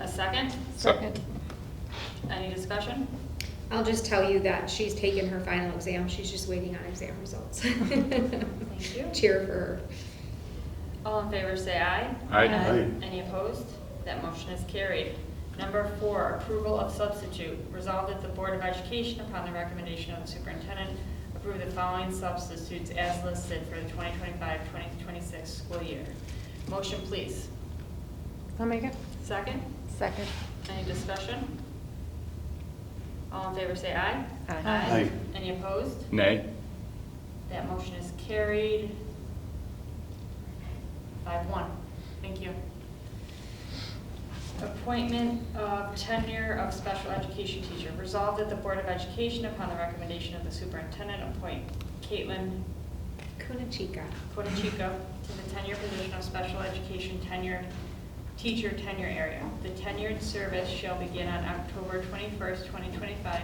A second? Second. Any discussion? I'll just tell you that she's taken her final exam, she's just waiting on exam results. Thank you. Cheer for her. All in favor, say aye. Aye. Aye. Any opposed? That motion is carried. Number four, approval of substitute. Resolved that the Board of Education, upon the recommendation of the superintendent, approve the following substitutes as listed for the 2025-2026 school year. Motion, please. I'll make it. Second? Second. Any discussion? All in favor, say aye. Aye. Aye. Aye. Any opposed? Nay. That motion is carried. Five one. Thank you. Appointment of tenure of special education teacher. Resolved that the Board of Education, upon the recommendation of the superintendent, appoint Caitlin Kunachika. Potachico to the tenure position of special education tenure, teacher tenure area. The tenured service shall begin on October 21st, 2025,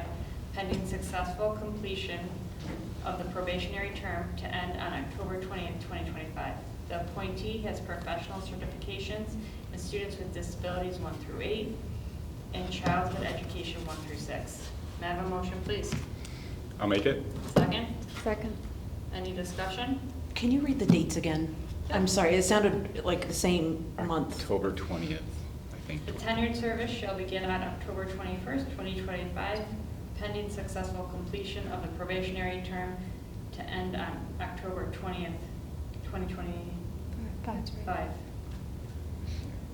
pending successful completion of the probationary term to end on October 20th, 2025. The appointee has professional certifications in students with disabilities 1 through 8 and childhood education 1 through 6. May I have a motion, please? I'll make it. Second? Second. Any discussion? Can you read the dates again? I'm sorry, it sounded like the same month. October 20th, I think. The tenured service shall begin on October 21st, 2025, pending successful completion of the probationary term to end on October 20th, 2025. That's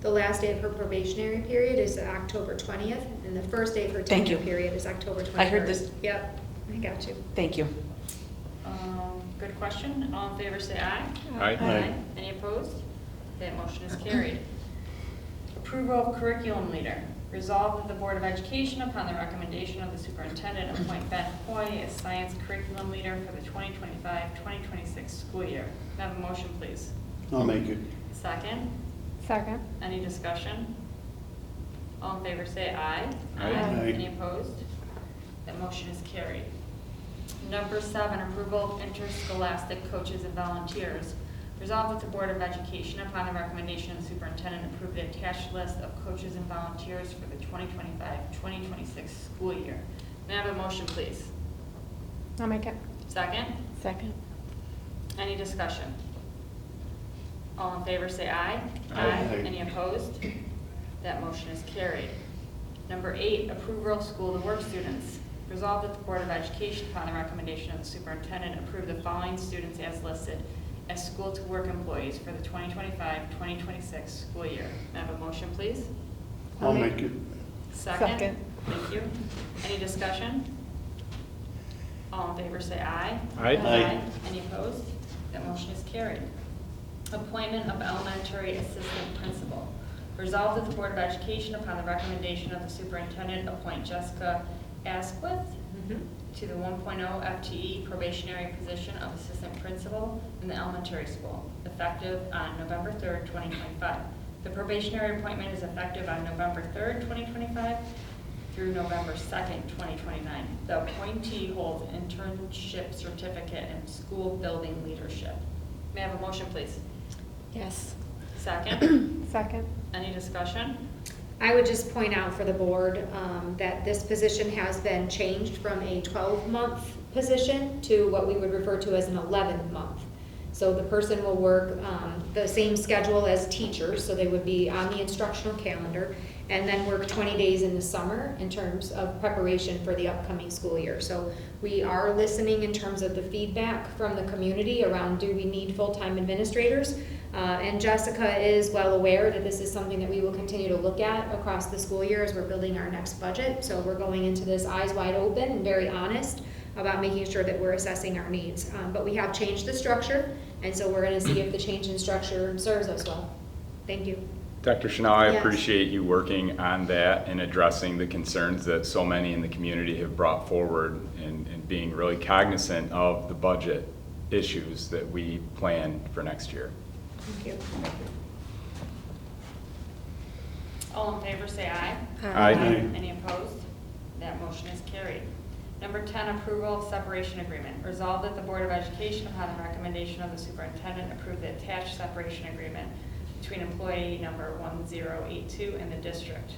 The last day of her probationary period is October 20th, and the first day of her Thank tenure you. period is October 21st. I heard this- Yep, I got you. Thank you. Um, Good question. All in favor, say aye. Aye. Aye. Any opposed? That motion is carried. Approval of curriculum leader. Resolved that the Board of Education, upon the recommendation of the superintendent, appoint Ben Hoy as science curriculum leader for the 2025-2026 school year. May I have a motion, please? I'll make it. Second, Second. any discussion? All in favor say aye. Aye. Aye. Any opposed? That motion is carried. Number seven, approval of interscholastic coaches and volunteers. Resolved that the Board of Education, upon the recommendation of the superintendent, approve the attached list of coaches and volunteers for the 2025-2026 school year. May I have a motion, please? I'll make it. Second, Second. any discussion? All in favor, say aye. Aye. Any opposed? That motion is carried. Number eight, approval of school to work students. Resolved that the Board of Education, upon the recommendation of the superintendent, approve the following students as listed as school to work employees for the 2025-2026 school year. May I have a motion, please? I'll make it. Second. Second. Thank you. Any discussion? All in favor, say aye. Aye. Aye. Any opposed? That motion is carried. Appointment of elementary assistant principal. Resolved that the Board of Education, upon the recommendation of the superintendent, appoint Jessica Asquith Mhm. to the 1.0 FTE E probationary position of assistant principal in the elementary school, effective on November 3rd, 2025. The probationary appointment is effective on November 3rd, 2025 through November 2nd, 2029. The appointee holds internship certificate in school building leadership. May I have a motion, please? Yes. Second. Second. Any discussion? I would just point out for the board um, that this position has been changed from a 12-month position to what we would refer to as an 11th month. So the person will work um, the same schedule as teachers, so they would be on the instructional calendar, and then work 20 days in the summer in terms of preparation for the upcoming school year. So we are listening in terms of the feedback from the community around, do we need full-time administrators? Uh, And Jessica is well aware that this is something that we will continue to look at across the school year as we're building our next budget. So we're going into this eyes wide open and very honest about making sure that we're assessing our needs. Um, But we have changed the structure, and so we're going to see if the change in structure serves us well. Thank you. Dr. Chanel, I Yes. appreciate you working on that and addressing the concerns that so many in the community have brought forward and, and being really cognizant of the budget issues that we plan for next year. Thank you. All in favor, say aye. Aye. Aye. Any opposed? That motion is carried. Number 10, approval of separation agreement. Resolved that the Board of Education, upon the recommendation of the superintendent, approve the attached separation agreement between employee number 1082 and the district.